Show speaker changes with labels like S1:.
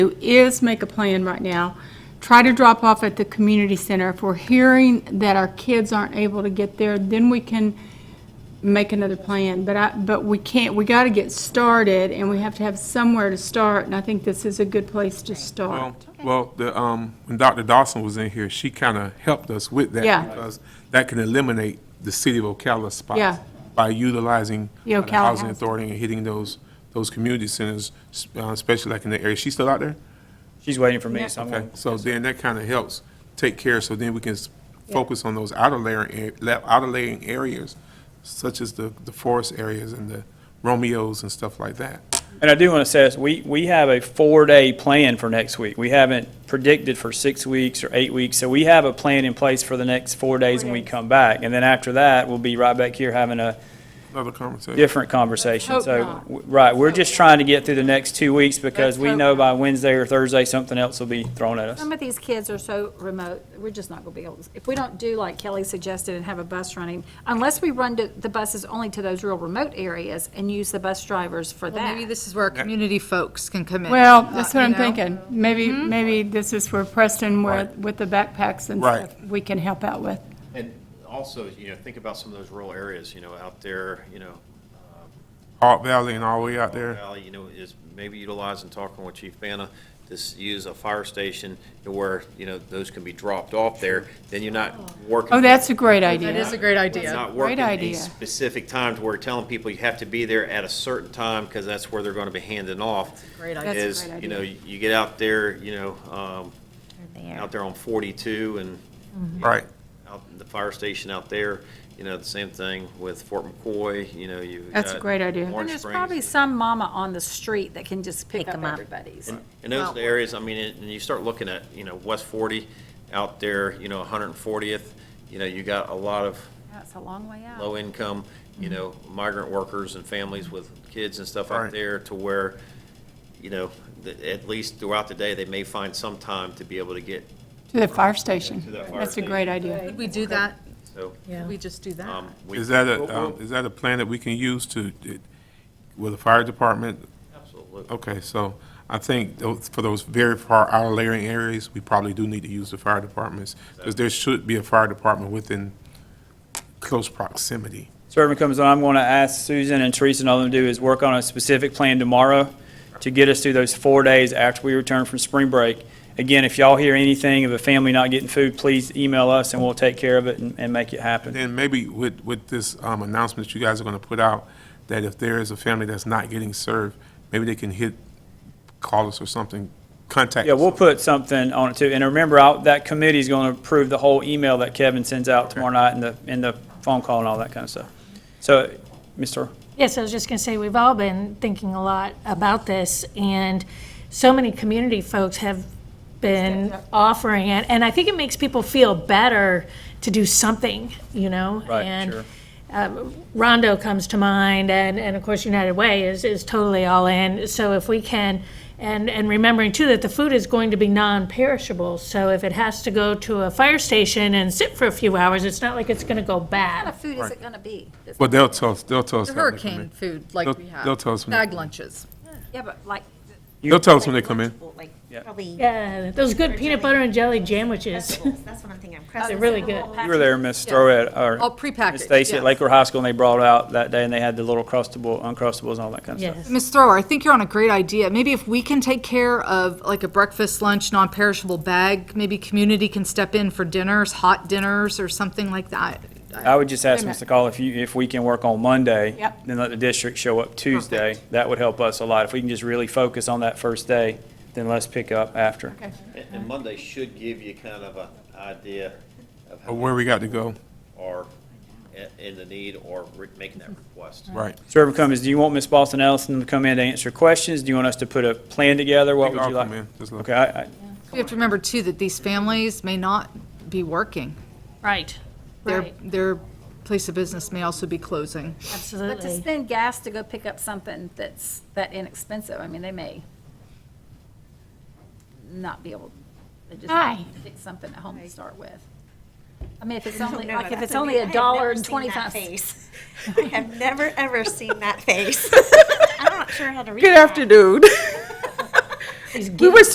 S1: do is make a plan right now. Try to drop off at the community center. If we're hearing that our kids aren't able to get there, then we can make another plan. But I, but we can't, we got to get started, and we have to have somewhere to start, and I think this is a good place to
S2: Well,
S1: start.
S2: well, the, um, when Dr. Dawson was in here, she kind of helped us with that.
S1: Yeah.
S2: Because that can eliminate the city of Ocala spots.
S1: Yeah.
S2: By utilizing
S1: The
S2: uh,
S1: Ocala
S2: the housing
S1: housing.
S2: authority and hitting those, those community centers, s- uh, especially like in the area. She's still out there?
S3: She's waiting for me,
S1: Yeah.
S3: so I'm
S2: Okay,
S3: gonna-
S2: so then that kind of helps take care, so then we can s- focus on those outer layering, a- la- outer layering areas, such as the, the forest areas and the Romeos and stuff like that.
S3: And I do want to say, this, we, we have a four-day plan for next week. We haven't predicted for six weeks or eight weeks, so we have a plan in place for the next four days when we come back. And then after that, we'll be right back here having a
S2: Another conversation.
S3: different conversation.
S1: Hope
S3: So,
S1: not.
S3: w- right, we're just trying to get through the next two weeks because we
S1: hope
S3: know by Wednesday or Thursday, something else will be thrown at us.
S4: Some of these kids are so remote, we're just not gonna be able, to if we don't do like Kelly suggested and have a bus running, unless we run to- the buses only to those real remote areas and use the bus drivers for
S5: Well, maybe
S4: that.
S5: this is where community folks can come in.
S1: Well,
S5: uh,
S1: that's what
S5: you
S1: I'm
S5: know? Mm-hmm.
S1: thinking. Maybe, maybe this is where Preston, where,
S2: Right.
S1: with the backpacks and
S2: Right.
S1: stuff, we can help out with.
S6: And also, you know, think about some of those rural areas, you know, out there, you know,
S2: Hart Valley and all the way out there.
S6: Valley, you know, is maybe utilizing, talking with Chief Bana, to s- use a fire station where, you know, those can be dropped off there, then you're not working.
S1: Oh, that's a great idea.
S5: That is a great idea.
S6: Not working a
S1: idea.
S6: specific time to where telling people you have to be there at a certain time, because that's where they're going to be handing off.
S5: Great idea.
S4: That's a
S6: Is,
S4: great
S6: you know, you get out there, you know, um, out there on forty-two and
S2: Right.
S6: out in the fire station out there, you know, the same thing with Fort McCoy, you know, you've
S1: That's a
S6: got
S1: great idea.
S6: Orange
S4: And there's
S6: Springs.
S4: probably some mama on the street that can just pick
S7: Pick
S4: up
S7: 'em up.
S4: everybody's.
S6: And those are the
S5: Wow.
S6: areas, I mean, it- and you start looking at, you know, West Forty out there, you know, one hundred and fortieth, you know, you got a lot of
S4: That's a long way out.
S6: low income, you know,
S1: Mm-hmm.
S6: migrant workers and families with kids and stuff
S2: Right.
S6: out there to where, you know, th- at least throughout the day, they may find some time to be able to get,
S1: To the fire station.
S6: To the fire
S1: That's a great idea.
S5: Could we do that?
S6: so.
S5: Could we just do that?
S6: um, we-
S2: Is that
S6: We'll-
S2: a,
S6: we'll-
S2: um, is that a plan that we can use to, it- with the fire department?
S6: Absolutely.
S2: Okay, so I think those- for those very far outer layering areas, we probably do need to use the fire departments, because there should be a fire department within close proximity.
S3: Servant comes on, I'm going to ask Susan and Teresa and all them to do is work on a specific plan tomorrow to get us through those four days after we return from spring break. Again, if y'all hear anything of a family not getting food, please email us and we'll take care of it and, and make it happen.
S2: Then maybe with, with this um, announcement that you guys are going to put out, that if there is a family that's not getting served, maybe they can hit, call us or something, contact us.
S3: Yeah, we'll put something on it too. And remember, I'll- that committee's going to approve the whole email that Kevin sends out tomorrow night and the, and the phone call and all that kind of stuff. So, Mr.
S8: Yes, I was just going to say, we've all been thinking a lot about this, and so many community folks have been offering it, and I think it makes people feel better to do something, you know?
S3: Right, sure.
S8: And Rondo comes to mind, and, and of course United Way is, is totally all in. So if we can, and, and remembering too that the food is going to be non-perishable, so if it has to go to a fire station and sit for a few hours, it's not like it's going to go bad.
S4: What food is it gonna be?
S2: But they'll tell us, they'll tell us.
S5: The
S2: that when they come
S5: Hurricane
S2: in.
S5: food like
S2: They'll-
S5: we
S2: they'll
S5: have,
S2: tell us when-
S5: bag lunches.
S4: Yeah, but like,
S2: They'll tell us when they come in.
S7: Like,
S3: Yeah.
S7: probably.
S8: Yeah, those good peanut butter and jelly sandwiches.
S7: vegetables. That's what I'm thinking.
S8: They're
S7: Crescents.
S8: really good.
S3: You were there, Miss Throet,
S5: Oh,
S3: or
S5: prepackaged.
S3: Miss Stacy at
S5: yes.
S3: Lake Shore High School, and they brought out that day and they had the little crustable, uncrustables and all that kind of stuff.
S8: Yes.
S5: Ms. Thrower, I think you're on a great idea. Maybe if we can take care of like a breakfast, lunch, non-perishable bag, maybe community can step in for dinners, hot dinners or something like that.
S3: I would just ask Mr. Call if you, if we can work on Monday.
S1: Yep.
S3: Then let the district show up Tuesday. That would help us a lot. If we can just really focus on that first day, then let's pick up after.
S6: And- And Monday should give you kind of an idea of
S2: Or
S6: how
S2: Where we got to go,
S6: are i- in the need or re- making that request.
S2: right.
S3: Servant Cummings, do you want Miss Boston Ellison to come in to answer questions? Do you want us to put a plan together?
S2: They
S3: What would
S2: all
S3: you like?
S2: come in, just let-
S3: Okay, I, I,
S5: We have to remember too that these families may not be working.
S8: Right,
S5: Their,
S8: right,
S5: their place of business may also be closing.
S4: but to
S8: absolutely.
S4: spend gas to go pick up something that's that inexpensive, I mean, they may not be able, they just
S1: Hi.
S4: pick something at home to start with. I mean, if it's
S7: No,
S4: only,
S7: no,
S4: like, if
S7: that's
S4: it's only
S7: okay. I
S4: a
S7: have
S4: dollar
S7: never
S4: and
S7: seen
S4: twenty
S7: that
S4: cents.
S7: face. I have never, ever seen that face. I'm not sure how to read
S9: Good
S7: that.
S9: afternoon.
S8: He's
S9: We were